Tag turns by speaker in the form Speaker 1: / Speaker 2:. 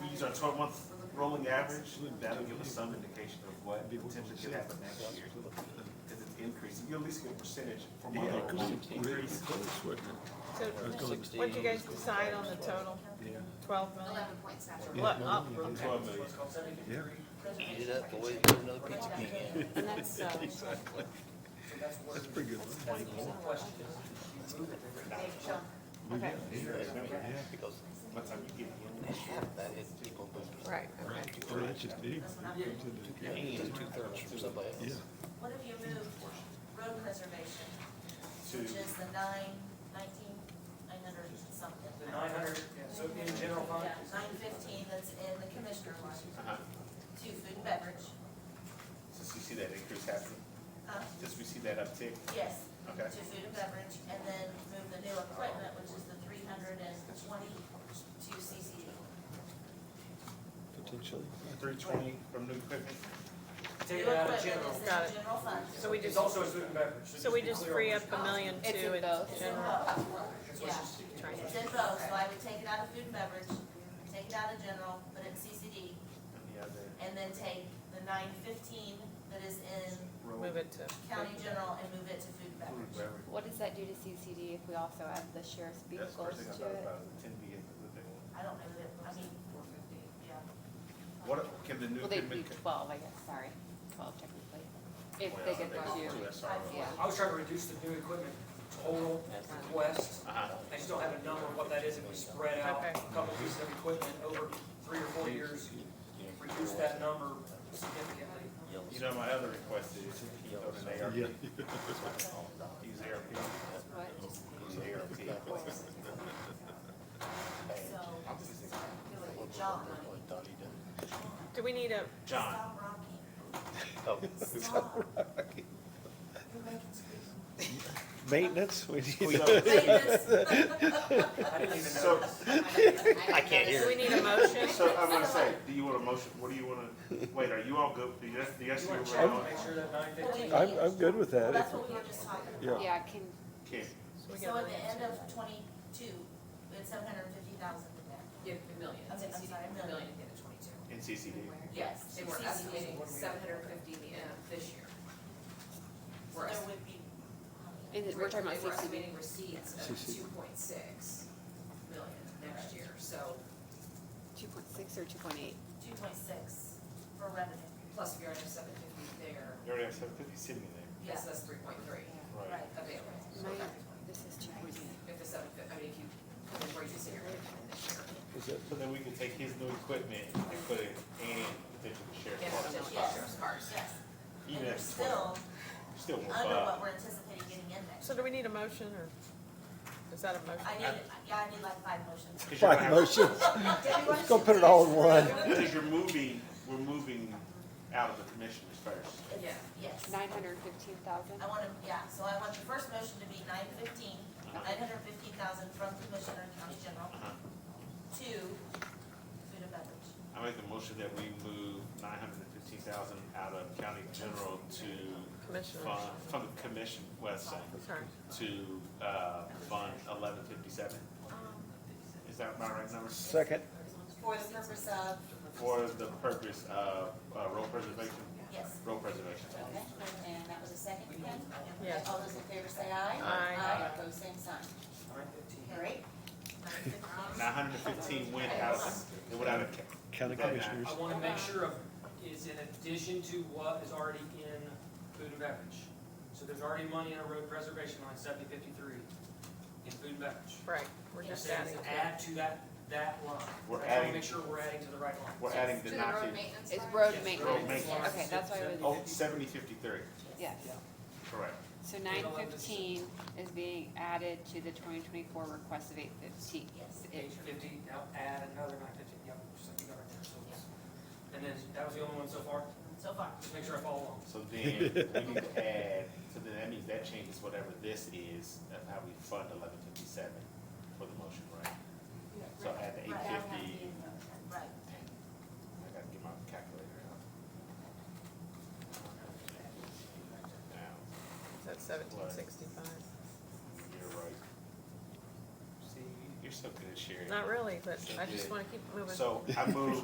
Speaker 1: use our twelve month rolling average, that'll give us some indication of what potentially could happen next year. Because it's increasing, you'll at least get a percentage from what increase.
Speaker 2: So, what'd you guys decide on the total? Twelve million?
Speaker 3: Eleven point seven.
Speaker 2: What, up,
Speaker 1: Twelve million.
Speaker 4: Eat it up, boys, put another pizza king in.
Speaker 5: And that's, uh,
Speaker 6: That's pretty good.
Speaker 2: okay.
Speaker 4: Because
Speaker 1: By the time you get in.
Speaker 4: half that is people moving.
Speaker 5: right, okay.
Speaker 6: Oh, that's just big.
Speaker 4: Just two thirds from somebody
Speaker 6: Yeah.
Speaker 4: else.
Speaker 7: What have you moved road preservation, which is the nine, nineteen, nine hundred and something?
Speaker 8: The nine hundred, so in general fund,
Speaker 7: Yeah, nine fifteen, that's in the commissioner line,
Speaker 1: Uh-huh.
Speaker 7: to food and beverage,
Speaker 1: Since we see that increase happen,
Speaker 7: uh,
Speaker 1: just we see that uptick,
Speaker 7: yes,
Speaker 1: okay,
Speaker 7: to food and beverage, and then move the new equipment, which is the three hundred and twenty to CCD.
Speaker 6: Potentially.
Speaker 1: three twenty from new equipment,
Speaker 8: take it out
Speaker 7: New equipment
Speaker 8: of general.
Speaker 7: is in
Speaker 2: Got it.
Speaker 7: the general fund.
Speaker 2: So we
Speaker 8: It's
Speaker 2: just,
Speaker 8: also a food and beverage.
Speaker 2: so we just free up a million
Speaker 5: It's
Speaker 2: two
Speaker 5: in
Speaker 2: in
Speaker 5: both.
Speaker 7: It's in
Speaker 2: general.
Speaker 7: both,
Speaker 8: That's what's
Speaker 7: yeah.
Speaker 8: just-
Speaker 7: It's in both, so I would take it out of food and beverage, take it out of general, put it in E, CCD,
Speaker 1: and the other
Speaker 7: and then take the nine fifteen that is in
Speaker 1: road.
Speaker 2: Move it to.
Speaker 7: county general and move it to food and beverage.
Speaker 5: What does that do to CCD if we also add the sheriff's
Speaker 1: That's
Speaker 5: vehicles
Speaker 1: the first thing I
Speaker 5: to
Speaker 1: thought
Speaker 5: it?
Speaker 1: about, the ten B is the big one.
Speaker 7: I don't know that, I mean, yeah.
Speaker 1: What, can the new
Speaker 5: Well, they'd be
Speaker 1: equipment?
Speaker 5: twelve, I guess, sorry, twelve technically, if
Speaker 1: Well,
Speaker 5: they get
Speaker 1: go
Speaker 5: the
Speaker 1: to
Speaker 5: two.
Speaker 1: SRO.
Speaker 5: Yeah,
Speaker 8: I was trying to reduce the new equipment total request.
Speaker 1: Uh-huh.
Speaker 8: I just don't have a number of what that is if we spread out
Speaker 2: Okay.
Speaker 8: a couple pieces of equipment over three or four years. Reduce that number significantly.
Speaker 1: You know, my other request is to keep on an ARP.
Speaker 6: Yeah.
Speaker 1: Use ARP,
Speaker 5: what,
Speaker 1: use ARP.
Speaker 7: So, I'll just do it, John,
Speaker 4: What I thought he did.
Speaker 2: Do we need a,
Speaker 1: John,
Speaker 7: stop rocking,
Speaker 4: Oh,
Speaker 7: stop. You're making
Speaker 6: Maintenance, we need.
Speaker 8: I didn't even know.
Speaker 1: so,
Speaker 4: I can't
Speaker 2: do we
Speaker 4: hear.
Speaker 2: need a motion?
Speaker 1: so I'm gonna say, do you want a motion, what do you wanna, wait, are you all good, do you, do you guys
Speaker 8: You
Speaker 1: feel
Speaker 8: want to
Speaker 1: we're
Speaker 8: check
Speaker 1: on?
Speaker 8: to make sure that nine fifteen
Speaker 7: screaming.
Speaker 6: I'm, I'm good with
Speaker 7: Well,
Speaker 6: that.
Speaker 7: that's
Speaker 6: If-
Speaker 7: what we were just talking about.
Speaker 6: Yeah.
Speaker 5: yeah, can,
Speaker 1: Okay,
Speaker 2: We
Speaker 7: So
Speaker 2: got a
Speaker 7: at the
Speaker 2: million.
Speaker 7: end of twenty-two, we had seven hundred and fifty thousand in there.
Speaker 9: Yeah, a million,
Speaker 7: Okay, I'm sorry, a
Speaker 9: a
Speaker 7: million.
Speaker 9: million at the end of twenty-two.
Speaker 1: in CCD,
Speaker 9: Yes, and we're
Speaker 7: CCD.
Speaker 9: estimating seven hundred fifty the end of this year.
Speaker 7: So
Speaker 9: We're
Speaker 7: there
Speaker 9: est-
Speaker 7: would be,
Speaker 5: is it, we're talking about
Speaker 9: they were
Speaker 5: CCD,
Speaker 9: estimating receipts of
Speaker 6: CCD.
Speaker 9: two point six million next year, so
Speaker 5: two point six or two point eight?
Speaker 7: two point six for revenue.
Speaker 9: plus we already have seven fifty there,
Speaker 1: you already have seven fifty sitting in
Speaker 9: yes, that's three point three
Speaker 1: there, right?
Speaker 7: Right.
Speaker 9: available.
Speaker 5: My, this is two point eight.
Speaker 9: If the seven fifty, I mean, if you, put in where you say you're gonna come in this year,
Speaker 6: is that-
Speaker 1: So then we can take his new equipment and put it in potential sheriff's department,
Speaker 9: and potentially sheriff's cars.
Speaker 7: Yes, and
Speaker 1: even if
Speaker 7: you're
Speaker 1: it's twelve, still
Speaker 7: still
Speaker 1: more
Speaker 7: under
Speaker 1: five.
Speaker 7: what we're anticipating getting in there.
Speaker 2: So do we need a motion or is that a motion?
Speaker 7: I need, yeah, I need like five motions.
Speaker 1: 'Cause you're gonna
Speaker 6: Five
Speaker 1: have-
Speaker 6: motions.
Speaker 7: Debbie, why don't
Speaker 6: Go
Speaker 7: you
Speaker 6: put it all in
Speaker 7: finish
Speaker 6: one.
Speaker 7: the-
Speaker 1: Because you're moving, we're moving out of the commissioners first.
Speaker 9: Yeah.
Speaker 7: Yes,
Speaker 5: Nine hundred fifteen thousand?
Speaker 7: I want to, yeah, so I want the first motion to be nine fifteen,
Speaker 6: Uh-huh.
Speaker 7: nine hundred fifteen thousand from Commissioner and County General
Speaker 1: Uh-huh.
Speaker 7: to food and beverage.
Speaker 1: I make the motion that we move nine hundred and fifteen thousand out of county general to
Speaker 2: Commissioner,
Speaker 1: fund, from the commission, west side,
Speaker 2: sorry.
Speaker 1: to, uh, fund eleven fifty-seven. Is that my right number?
Speaker 6: Second,
Speaker 7: For the purpose of,
Speaker 1: For the purpose of, uh, road preservation,
Speaker 7: yes,
Speaker 1: road preservation.
Speaker 3: Okay, and that was a second, again?
Speaker 2: Yes.
Speaker 3: All those in favor say aye.
Speaker 2: Aye.
Speaker 3: Aye, pose same sign.
Speaker 8: nine fifteen.
Speaker 3: All right,
Speaker 1: Nine hundred and fifteen went out, of- it went out of, ca-
Speaker 6: county commissioners.
Speaker 8: I wanna make sure of, is in addition to what is already in food and beverage. So there's already money in a road preservation line, seventy fifty-three, in food and beverage.
Speaker 2: Right, we're
Speaker 8: You're
Speaker 2: just
Speaker 8: saying
Speaker 2: adding.
Speaker 8: to
Speaker 2: to it.
Speaker 8: add to that, that line.
Speaker 1: We're
Speaker 8: I just wanna
Speaker 1: adding-
Speaker 8: Make sure we're adding to the right line.
Speaker 1: we're adding
Speaker 9: To
Speaker 1: the
Speaker 9: the
Speaker 1: not
Speaker 9: road
Speaker 1: to,
Speaker 9: maintenance.
Speaker 5: It's
Speaker 9: fund?
Speaker 5: road
Speaker 8: Yes, road
Speaker 5: maintenance,
Speaker 8: maintenance.
Speaker 5: okay, that's why I was,
Speaker 1: oh, seventy fifty-three,
Speaker 5: yes.
Speaker 1: correct.
Speaker 5: So nine fifteen is being added to the twenty twenty-four request of eight fifteen.
Speaker 7: yes.
Speaker 8: Eight fifty, now add another nine fifty, yep, just like you got right there, so it's- And then, that was the only one so far,
Speaker 7: So far,
Speaker 8: just make sure I follow along.
Speaker 1: So then, we need to add, so then that means that changes whatever this is of how we fund eleven fifty-seven for the motion, right? So add the eight
Speaker 7: Right.
Speaker 1: fifty,
Speaker 7: right.
Speaker 1: I gotta get my calculator out. Now,
Speaker 2: Is that seventeen sixty-five?
Speaker 1: You're right. See, you're so good at sharing.
Speaker 2: Not really, but I just wanna keep moving.
Speaker 1: So I move